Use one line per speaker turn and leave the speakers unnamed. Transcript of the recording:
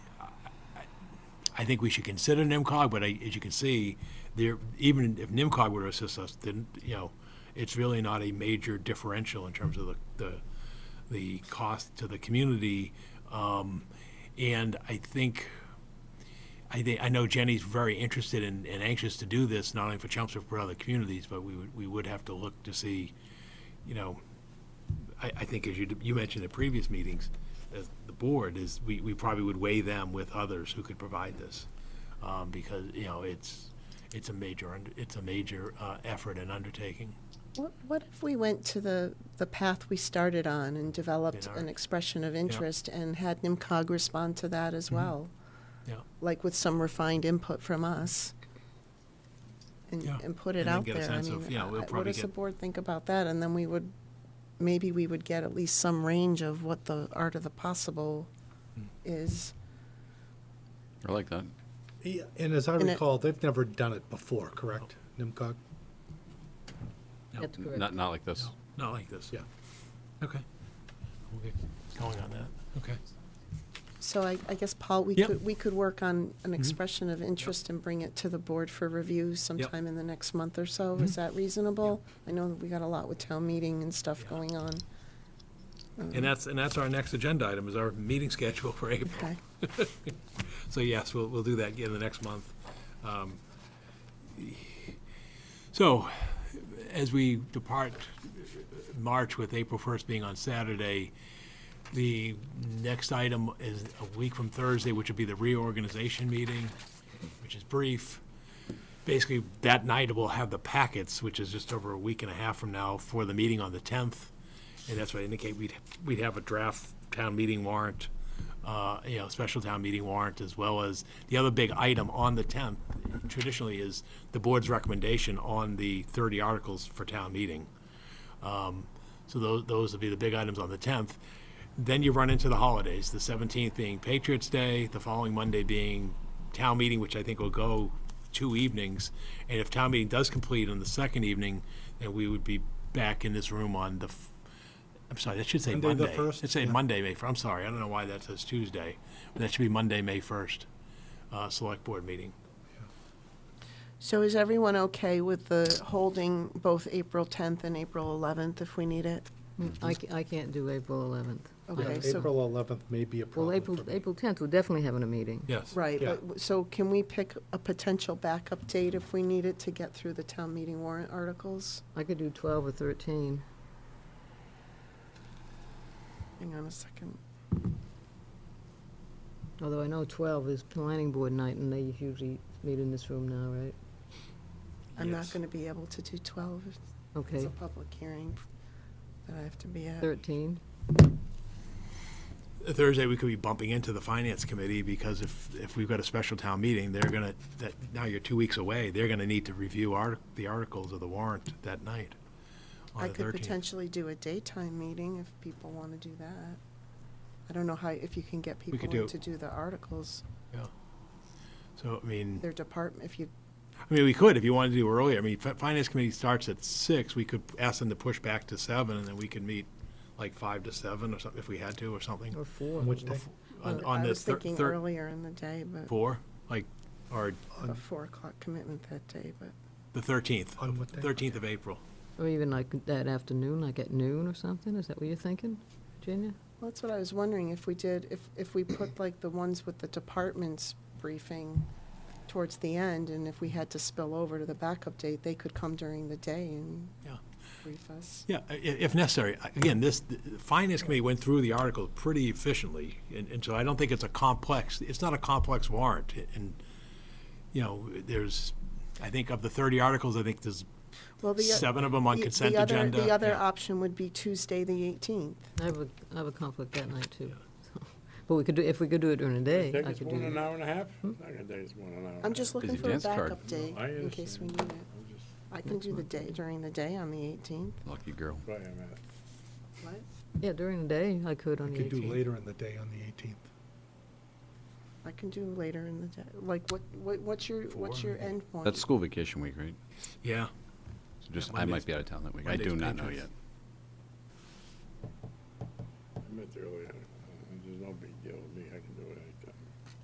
I think we should consider NIMCOG, but I, as you can see, there, even if NIMCOG were to assist us, then, you know, it's really not a major differential in terms of the, the, the cost to the community. Um, and I think, I think, I know Jenny's very interested and, and anxious to do this, not only for Chelmsford, but for other communities, but we would, we would have to look to see, you know, I, I think as you, you mentioned at previous meetings, as the board is, we, we probably would weigh them with others who could provide this. Um, because, you know, it's, it's a major, und- it's a major, uh, effort and undertaking.
What, what if we went to the, the path we started on and developed
Yeah. Mm-hmm.
an expression of interest and had NIMCOG respond to that as well?
Yeah.
Like with some refined input from us? And,
Yeah.
and put it
And then
out
get a
there. I
sense of-
mean,
yeah, we'll
I- what
probably
does the
get-
board think about that? And then we would, maybe we would get at least some range of what the art of the possible
Hmm.
is.
I like that.
Yeah, And as I
And it-
recall, they've never done it before, correct? NIMCOG?
That's
N-
correct.
Not, not like this.
Not like this.
Yeah.
Okay. We'll get going on that. Okay.
So I, I guess, Paul, we
Yep. Mm-hmm.
could, we could work on an expression of interest and bring it to the board for review sometime in the next month or so.
Mm-hmm.
Is that reasonable? I know that we got a lot with town meeting and stuff
Yeah.
going on.
And that's, and that's our next agenda item is our meeting schedule for April.
Okay.
So yes, we'll, we'll do that in the next month. Um, So, as we depart uh, March with April first being on Saturday, the next item is a week from Thursday, which would be the reorganization meeting, which is brief. Basically, that night we'll have the packets, which is just over a week and a half from now, for the meeting on the tenth. And that's what I indicate, we'd, we'd have a draft town meeting warrant, uh, you know, special town meeting warrant, as well as the other big item on the tenth traditionally is the board's recommendation on the thirty articles for town meeting. So those, those would be the big items on the 10th. Then you run into the holidays, the 17th being Patriots Day, the following Monday being town meeting, which I think will go two evenings. And if town meeting does complete on the second evening, then we would be back in this room on the, f- I'm sorry, that should say
Monday
Monday.
the 1st?
It'd say
Yeah.
Monday, May 1st. I'm sorry, I don't know why that says Tuesday. That should be Monday, May 1st, uh, select board meeting.
So is everyone okay with the holding both April tenth and April eleventh if we need it?
Mm, I, ca- I can't do April eleventh.
Yeah,
Okay, so,
April 11th may be a
Well,
problem
April,
for me.
April tenth, we're definitely having a meeting.
Yes.
right,
Yeah.
but, w- so can we pick a potential backup date if we need it to get through the town meeting warrant articles?
I could do twelve or thirteen.
Hang on a second.
Although I know twelve is planning board night, and they usually meet in this room now, right?
I'm not
Yes.
gonna be able to do twelve. It's- It's
Okay,
a public hearing that I have to be at.
thirteen.
Thursday, we could be bumping into the finance committee, because if, if we've got a special town meeting, they're gonna, that, now you're two weeks away, they're gonna need to review our, the articles of the warrant that night. on
I
the
could
13th.
potentially do a daytime meeting if people want to do that. I don't know how, if you can get people
could do-
in to do the articles,
So, I mean,
their department, if you,
I mean, we could, if you wanted to do earlier, I mean, fi- finance committee starts at six, we could ask them to push back to seven, and then we could meet like five to seven or something, if we had to, or something.
Or four.
On Which day?
On, on
I
the
was
thir-
thinking
thir-
earlier in the day, but
four, like, or
a four o'clock commitment that day, but
the thirteenth,
On what day?
thirteenth of April.
Or even like that afternoon, like at noon or something, is that what you're thinking, Virginia?
well, that's what I was wondering, if we did, if, if we put like the ones with the departments briefing towards the end, and if we had to spill over to the backup date, they could come during the day and
Yeah.
brief us.
Yeah, i- i- if necessary. Again, this, the Finance Committee went through the article pretty efficiently, and, and so I don't think it's a complex, it's not a complex warrant. And, you know, there's, I think of the thirty articles, I think there's
Well, the, o-
seven of them on
the-
consent
the other-
agenda.
The other
Yeah.
option would be Tuesday, the eighteenth.
I have a, I have a conflict that night too. But we could do, if we could do it during the day,
Take
I
us
could
one
do
an
that.
hour and a half? I can take us one an hour.
I'm just looking
Busy
for a
dance card.
backup date
I
in case we need it. I can do the day, during the day on the 18th.
Lucky girl.
Wait a minute.
What?
Yeah, during the day, I could on
We
the
could do
eighteenth.
later in the day on the 18th.
I can do later in the day. Like, what, what, what's your, what's
Four,
your end point?
That's school vacation week, right?
Yeah,
So Just,
Yeah,
I
Monday's-
might be out of town that week. I
Monday's
do not know yet.
Patriots.
I meant earlier, uh, there's no big deal with me, I can do